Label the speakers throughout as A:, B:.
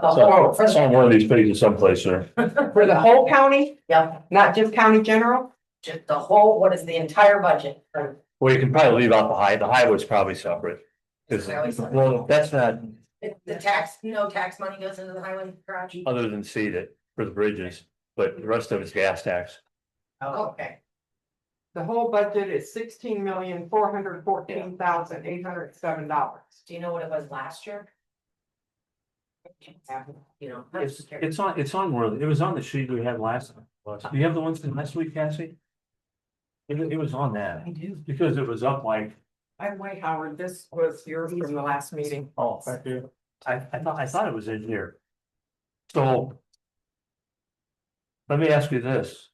A: The
B: So-
A: whole, for
B: on one of these pages someplace, sir.
C: For the whole county,
A: yeah,
C: not just county general?
A: just the whole, what is the entire budget?
B: Well, you can probably leave out the high, the highway's probably separate. 'Cause- well, that's not,
A: The the tax, no tax money goes into the highway garage?
B: other than seed it for the bridges, but the rest of it's gas tax. Oh.
A: Okay,
C: The whole budget is sixteen million, four hundred fourteen thousand, eight hundred seven dollars.
A: do you know what it was last year? You know. I'm
B: It's,
A: just curious.
B: it's on, it's on one, of the- it was on the sheet we had last, last- do you have the ones from last week, Cassie? It, it was on that,
C: I do.
B: because it was up like,
C: By the way, Howard, this was yours from the last meeting.
B: oh, right there. I, I thought, I thought it was in here. So. Let me ask you this.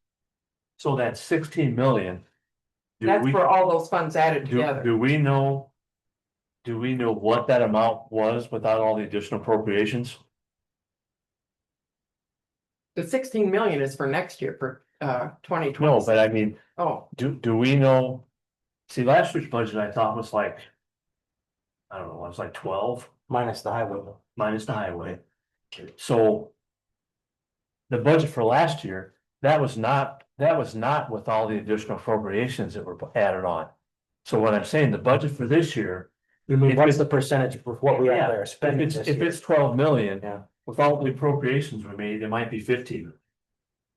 B: So that sixteen million. do
C: That's
B: we-
C: for all those funds added
B: Do,
C: together.
B: do we know? Do we know what that amount was without all the additional appropriations?
C: The sixteen million is for next year for uh twenty
B: No,
C: twenty.
B: but I mean,
C: Oh,
B: do, do we know? See, last year's budget I thought was like. I don't know, it was like twelve. Minus the highway. Minus the highway. So. The budget for last year, that was not, that was not with all the additional appropriations that were added on. So what I'm saying, the budget for this year,
D: You
B: If
D: mean,
B: it's-
D: what's the percentage of what we
B: Yeah,
D: have there
B: if
D: spending
B: it's,
D: this
B: if
D: year?
B: it's twelve million.
D: Yeah.
B: With all the appropriations we made, it might be fifteen,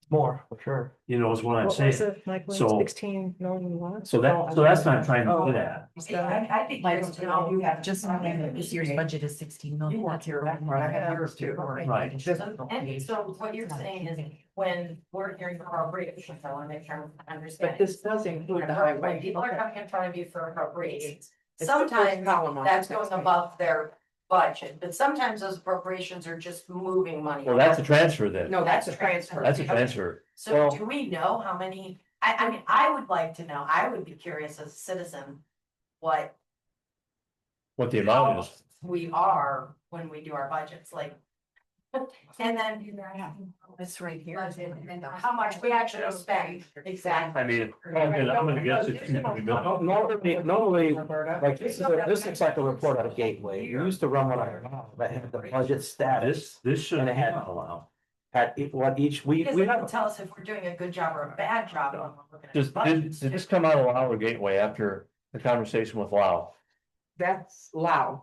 D: More, for sure.
B: you know, is what I'm
E: What was
B: saying.
E: it, like,
B: So-
E: sixteen million was?
B: So that, so that's what I'm trying to
E: Oh.
B: get at.
C: uh,
A: Yeah, I, I think there's, you know, you have
E: Just
A: just.
E: on that, this year's budget is sixteen
A: You
E: million,
A: want
E: that's your.
A: to go back and
E: override.
A: I have
E: Yours too.
B: Right.
A: And so what you're saying is when we're hearing appropriations, I wanna make sure I
C: but
A: understand.
C: this does include the
A: When people are
C: highway.
A: coming in front of you for appropriations,
C: It's the first
A: sometimes
C: column on the
A: that's going
C: next page.
A: above their budget, but sometimes those appropriations are just moving money.
B: Well, that's a transfer then.
C: No, that's a transfer.
B: That's a transfer.
A: So do we know how many, I, I mean, I would like to know, I would be curious as a citizen, what
B: What the amount is.
A: we are when we do our budgets, like. And then
E: It's right here.
A: how much we actually spend, exactly.
B: I mean, I'm gonna I'm gonna guess it's. $50 million.
D: No- Normally, normally,
C: Roberta?
D: like, this is, a- this looks like a report out of Gateway. We used to run one on, our own that had the budget status,
B: This, this should
D: And it had-
B: not allow.
D: had e- what each, we,
A: Because
D: we
A: it'll
D: have.
A: tell us if we're doing a good job or a bad job. when we're looking at
B: Does, did,
A: budgets.
B: did this come out of Lauer Gateway after the conversation with Lau?
C: That's loud.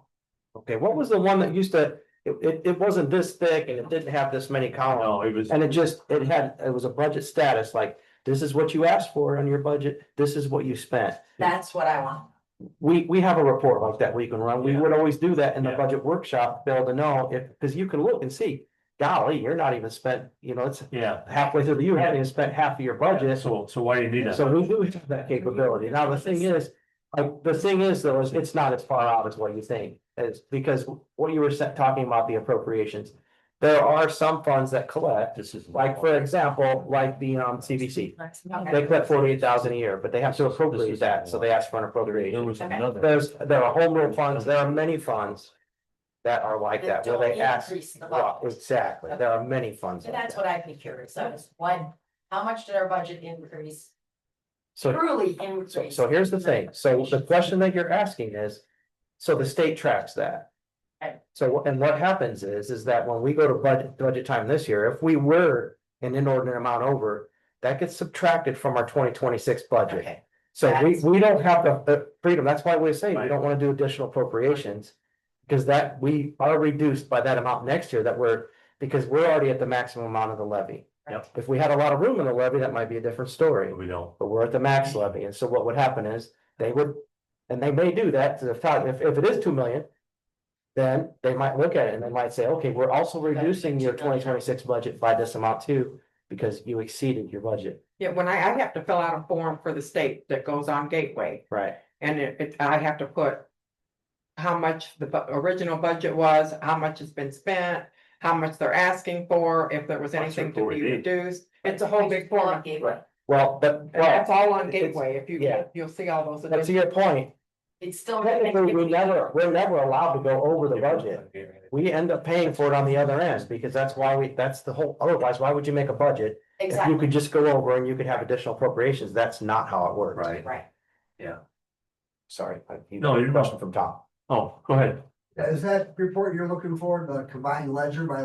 D: Okay, what was the one that used to, it, it, it wasn't this thick and it didn't have this many columns?
B: No, it was,
D: Oh. And it just, it had, it was a budget status, like, this is what you asked for on your budget, this is what you spent.
A: That's what I want.
D: We, we have a report like that we can run. We
B: Yeah.
D: would always do that in the
B: Yeah.
D: budget workshop, Bill, to know if, because you can look and see. Golly, you're not even spent, you know, it's
B: yeah.
D: halfway through, the year, you haven't even spent half of your budget.
B: So,
D: So
B: so why do you need that?
D: we do have that capability. Now, the thing is, like, the thing is though, is it's not as far out as what you think. It's because what you were sa- talking about the appropriations. There are some funds that collect,
B: This is.
D: like, for example, like the um CBC. They collect forty-eight thousand a year, but they have to appropriate that, so they ask for an appropriation.
B: There was
A: Okay.
B: another.
D: There's, there are home rule funds, there are many funds. That are like that, where they
A: Don't
D: ask,
A: increase the
D: well,
A: budget.
D: exactly, there are many funds.
A: So
D: like
A: that's
D: that.
A: what I'd be curious of, is what, how much did our budget increase,
D: So,
A: truly
D: so,
A: increase?
D: so here's the thing, so the question that you're asking is, so the state tracks that.
A: Right.
D: So, what- and what happens is, is that when we go to budget, budget time this year, if we were an inordinate amount over, that gets subtracted from our twenty twenty-six budget.
A: Okay,
D: So we,
A: That's-
D: we don't have the, the freedom, that's why we say we
B: Right.
D: don't wanna do additional appropriations. Cause that, we are reduced by that amount next year that we're, because we're already at the maximum amount of the levy.
B: Yep.
D: If we had a lot of room in the levy, that might be a different story,
B: We don't.
D: but we're at the max levy, and so what would happen is, they would, and they may do that to the fact, if, if it is two million. Then they might look at it and they might say, okay, we're also reducing your twenty twenty-six budget by this amount too, because you exceeded your budget.
C: Yeah, when I, I have to fill out a form for the state that goes on Gateway.
D: Right.
C: And it, it, I have to put. How much the bu- original budget was, how much has been spent, how much they're asking for, if there was
B: That's
C: anything to
B: what
C: be
B: we need.
C: reduced. It's a whole big form. And
A: Gateway.
D: Well, but.
C: that's all on
D: It's-
C: Gateway. If you,
D: yeah.
C: you'll see all those.
D: But to
C: additions.
D: your point,
A: It's still.
D: technically, we never, we're never allowed to go over the budget. We end up paying for it on the other end, because that's why we, that's the whole, otherwise, why would you make a budget? If you
A: Exactly,
D: could just go over and you could have additional appropriations, that's not how it works.
B: Right.
A: right.
D: Sorry. I- you
B: No,
D: got a
B: you're not.
D: Question from Tom.
B: Oh, go ahead.
F: Is that report you're looking for, the combined ledger by